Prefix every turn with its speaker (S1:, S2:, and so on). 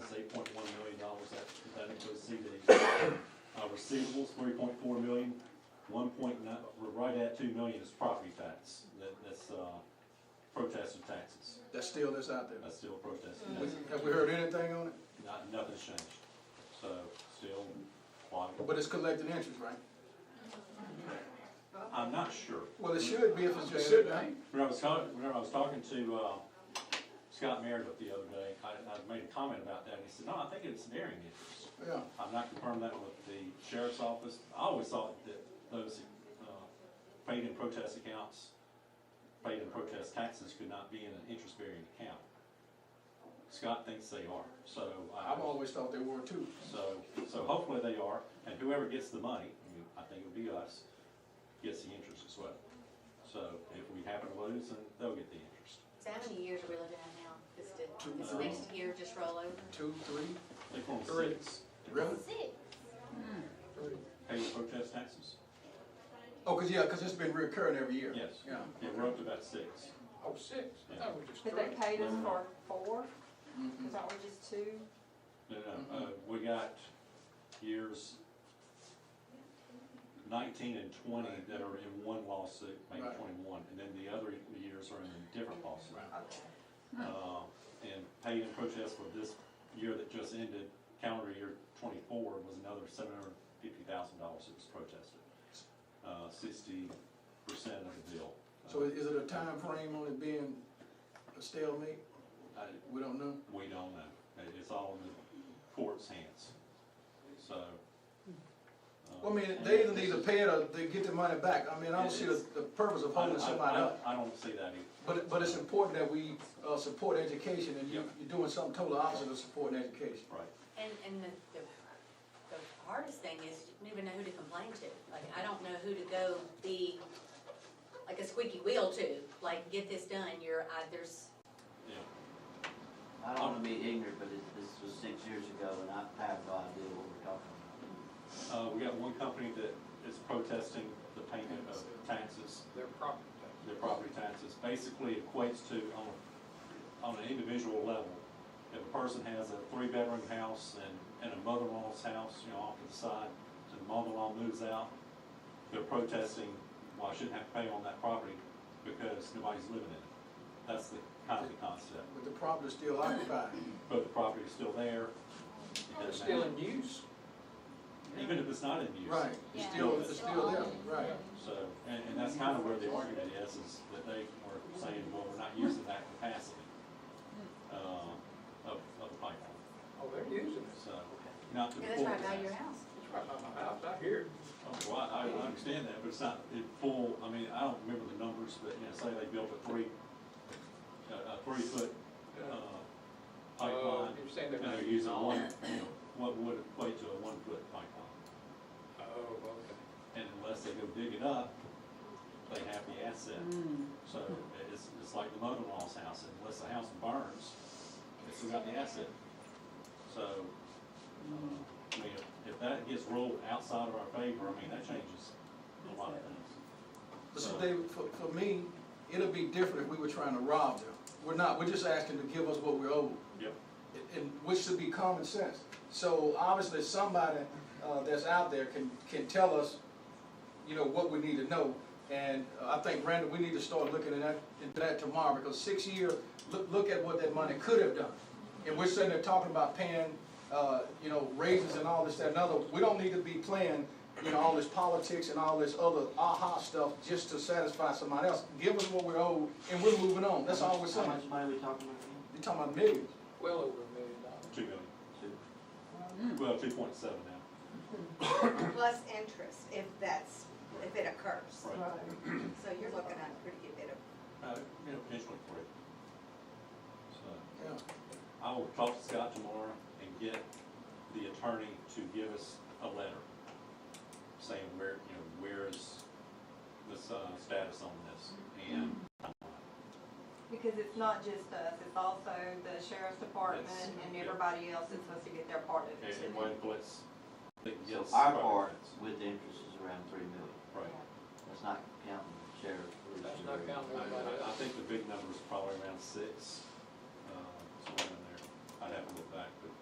S1: is eight point one million dollars, that, that includes CDs. Uh, receivables, three point four million, one point nine, we're right at two million is property tax, that, that's, uh, protester taxes,
S2: That's still that's out there.
S1: that's still protester
S2: We-
S1: taxes,
S2: Have we heard anything on it?
S1: not, nothing's changed, so, still, lot of-
S2: But it's collected interest, right?
S1: I'm not sure.
S2: Well, it should be if it's
S3: It
S2: just.
S3: should be.
S1: When I was talking, when I was talking to, uh, Scott Meredith the other day, I, I made a comment about that, and he said, no, I think it's varying interest.
S2: Yeah,
S1: I've not confirmed that with the sheriff's office. I always thought that those, uh, paid in protest accounts, paid in protest taxes could not be in an interest-bearing account. Scott thinks they are, so I,
S2: I've always thought they were too.
S1: so, so hopefully they are, and whoever gets the money, I mean, I think it'll be us, gets the interest as well. So if we happen to lose, then they'll get the interest.
S4: So how many years are we looking at now? Is it,
S2: Two
S4: is the next year just roll over?
S2: Two, three,
S1: They call them
S2: Three.
S1: six,
S2: really?
S4: Six.
S2: Three.
S1: paid in protest taxes.
S2: Oh, cause yeah, cause it's been recurring every year.
S1: Yes,
S2: Yeah.
S1: yeah, we're up to about six.
S3: Oh, six, I thought we just
S5: But they
S3: three.
S5: paid us for four,
S2: Mhm.
S5: is that we just two?
S1: No, no, uh, we got years nineteen and twenty that are in one lawsuit, maybe
S2: Right.
S1: twenty-one, and then the other years are in a different lawsuit.
S2: Right.
S1: Uh, and paid in protest for this year that just ended, calendar year twenty-four, was another seven hundred fifty thousand dollars that was protested. Uh, sixty percent of the bill.
S2: So is it a time frame on it being a stalemate?
S1: I,
S2: We don't know.
S1: we don't know, It- it's all in the court's hands, so. uh,
S2: Well, I mean, they either need to pay it or they get their money back. I mean, I don't see the, the purpose of
S1: I-
S2: holding
S1: I-
S2: somebody
S1: I-
S2: up.
S1: I don't see that either.
S2: But, it- but it's important that we, uh, support education and you,
S1: Yep.
S2: you're doing something totally opposite of supporting education.
S1: Right.
S4: And, and the, the, the hardest thing is you don't even know who to complain to. Like, I don't know who to go be, like a squeaky wheel to, like, get this done, you're, I, there's,
S1: Yeah,
S6: I don't wanna be ignorant, but it, this was six years ago, and I have no idea what we're talking about.
S1: uh, we got one company that is protesting the payment of taxes,
S3: Their property
S1: their property taxes, basically equates to, on, on an individual level, if a person has a three-bedroom house and, and a mother-in-law's house, you know, off to the side, and the mother-in-law moves out, they're protesting, well, I shouldn't have to pay on that property because nobody's living in it. That's the kind of the concept,
S2: But the property's still occupied.
S1: but the property is still there. it
S3: tax. They're
S1: doesn't
S3: still
S1: matter.
S3: in use.
S1: even if it's not in use.
S2: Right, it's still, it's still there, right.
S1: So, and, and that's kind of where the argument is, is that they are saying, well, we're not using that capacity, uh, of, of the pipeline,
S3: Oh, they're using it.
S1: so, not to the
S4: yeah,
S1: full
S4: that's right by your
S1: capacity.
S4: house.
S3: It's right by my house, I hear it.
S1: Oh, Well, I, I understand that, but it's not in full, I mean, I don't remember the numbers, but, you know, say they built a three, a, a three-foot, uh,
S3: Oh,
S1: pipeline,
S3: you're saying they're
S1: and
S3: not
S1: they're
S3: using
S1: using
S3: all
S1: one,
S3: of
S1: you know,
S3: it.
S1: what would equate to a one-foot pipeline.
S3: Oh, okay.
S1: And unless they go dig it up, they have the asset. So it's, it's like the mother-in-law's house, unless the house burns, it's still got the asset. So, uh, I mean, if- if that gets ruled outside of our favor, I mean, that changes a lot of things.
S2: But see, David, for, for me, it'll be different if we were trying to rob them. We're not, we're just asking to give us what we owe,
S1: Yep.
S2: and- and, which should be common sense. So obviously, somebody, uh, that's out there can, can tell us, you know, what we need to know. And uh, I think, Randall, we need to start looking at that, into that tomorrow, because six years, look, look at what that money could have done. And we're sitting there talking about paying, uh, you know, raises and all this, that, and other. We don't need to be playing, you know, all this politics and all this other aha stuff just to satisfy somebody else. Give us what we're owed, and we're moving on. That's all we're saying.
S6: How much money we talking about again?
S2: You're talking about millions.
S3: Well over a million dollars.
S1: Two million. Well, two point seven now,
S7: plus interest if that's, if it occurs.
S1: right?
S7: So you're looking at a pretty good bit of
S1: Uh, you know, potentially three. So
S2: Yeah.
S1: I will talk to Scott tomorrow and get the attorney to give us a letter saying where, you know, where is this, uh, status on this? And
S5: Because it's not just us, it's also the sheriff's department
S1: Yes.
S5: and
S1: Yeah.
S5: everybody else that's supposed to get their part of it.
S1: And one place that
S6: So
S1: gets.
S6: our part with the interest is around three million,
S1: Right.
S6: that's not counting sheriff, police.
S3: That's not
S6: or-
S1: I,
S3: counting everybody
S1: I, I
S3: else.
S1: think the big number is probably around six, uh, somewhere in there. I'd have to look back, but